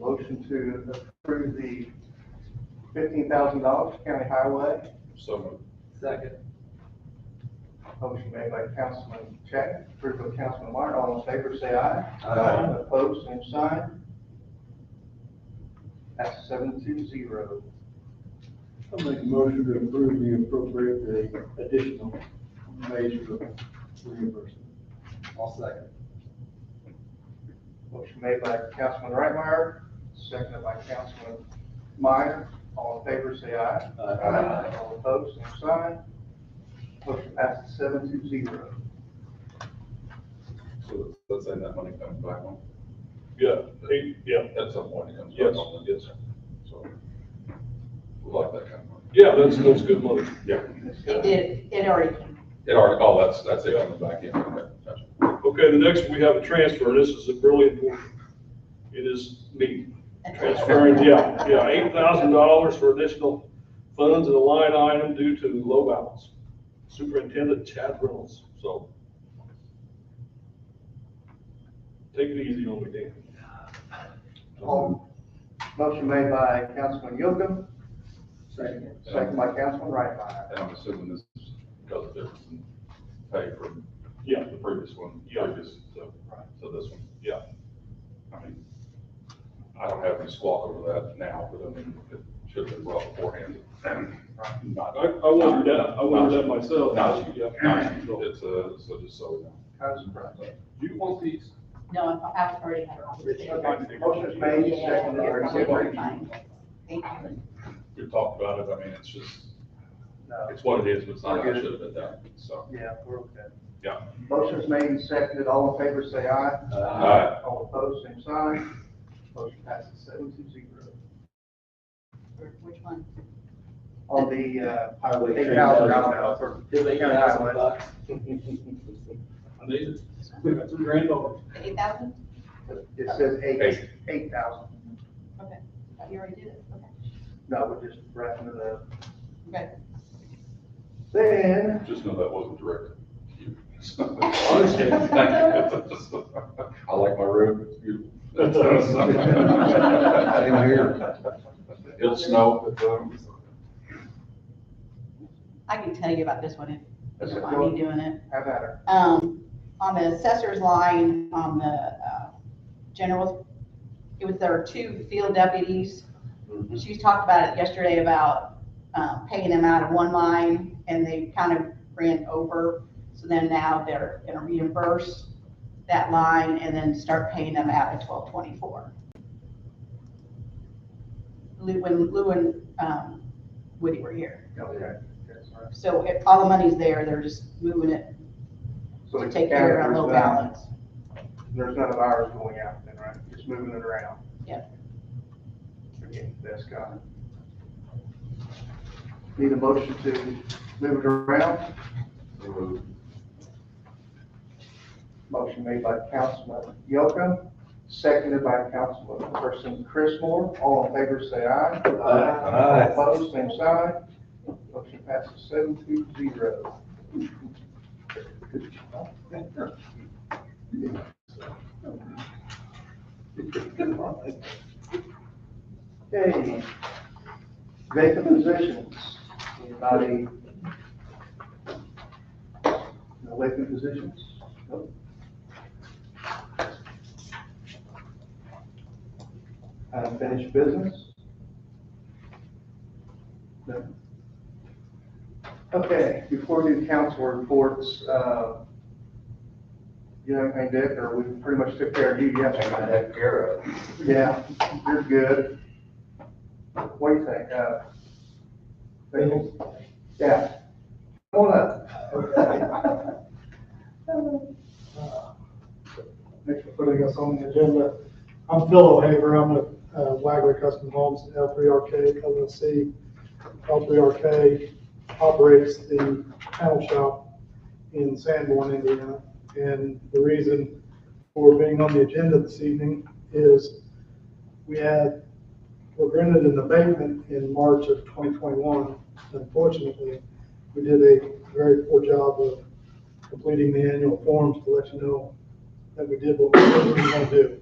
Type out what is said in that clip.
motion to approve the fifteen thousand dollars county highway. So moved. Second. Motion made by Councilman Check, approved by Councilman Martin, all in favor, say aye. Aye. Opposed, same sign. That's seven to zero. I'll make a motion to approve the appropriate, the additional wage for reimbursement. I'll second. Motion made by Councilman Reitmeyer, seconded by Councilman Meyer, all in favor, say aye. Aye. All opposed, same sign. Motion passes seven to zero. So let's say that money comes back on, Yeah, eight, yeah. at some point it comes back Yes. on, yes, sir. So, we like that kind of money. Yeah, that's, that's good money. Yeah. It did, it already came. It already, oh, that's, that's it on the back end, okay, gotcha. Okay, the next, we have a transfer, and this is really important. It is me transferring, yeah, yeah, eight thousand dollars for additional funds in a line item due to low balance. Superintendent Chad Reynolds, so. Take it easy on me, Dan. All, Um, motion made by Councilman Yocum, Second. second by Councilman Reitmeyer. And I'm assuming this is because of difference in pay from Yeah. the previous one, Yeah. previous, so, Right. so this one. Yeah. I mean, I don't have any squawk over that now, but I mean, it should have been brought beforehand. I, Not- I wondered that, I wondered that myself. Not you, Yeah. not you. It's, uh, so just so we know. Kind of surprised. Do you want these? No, I- I've already had it. Motion is made, Yeah, second, you're or fine, you're second. fine. Thank you. We talked about it, I mean, it's just, No, it's what it is, but it's not, how it should have been done, so, yeah, we're okay. yeah. Motion is made and seconded, all in favor, say aye. Aye. All opposed, same sign. Motion passes seven to zero. Which one? On the, uh, Highway eight thousand $8,000. dollars. Fifteen thousand bucks. I need it. Two grand over. The eight thousand? It says eight, Eight. eight thousand. Okay, Thought you already did it, okay. No, we're just wrapping it up. Okay. Then, Just know that wasn't directed to you. understand. Thank you. I like my road, it's beautiful. Same here. It'll snow, but, um, I can tell you about this one if you That's don't it. mind me doing it. have at her. Um, on the assessor's line, on the, uh, general, it was there were two field deputies. She talked about it yesterday about, uh, paying them out of one line and they kind of ran over. So then now they're gonna reimburse that line and then start paying them out of twelve twenty-four. Lou, when Lou and, um, Woody were here. Okay. That's all right. So if all the money's there, they're just moving it So to it's take care of our counted, low there's none- balance. There's none of ours going out then, right? Just moving it around. Yep. Okay, that's got it. Need a motion to move it around? remove. Motion made by Councilman Yocum, seconded by Councilperson Chrismore. All in favor, say aye. Aye. All Opposed, same sign. Motion passes seven to zero. Okay. Vacant positions. Anybody? No vacant positions? Nope. Unfinished business? No. Okay, before we do council reports, uh, you know, anything, Dick, or we pretty much took care of you yesterday? care of. Yeah, you're good. What do you think? uh, Bill? Yeah. Come on up. Thanks for putting us on the agenda. I'm Phil O'Haver, I'm with uh, Wagler Custom Homes, L3RK LLC. L3RK operates the panel shop in Sanborn, Indiana. And the reason for being on the agenda this evening is we had, were granted an abatement in March of 2021. Unfortunately, we did a very poor job of completing the annual forms to let you know that we did what we said we were gonna do.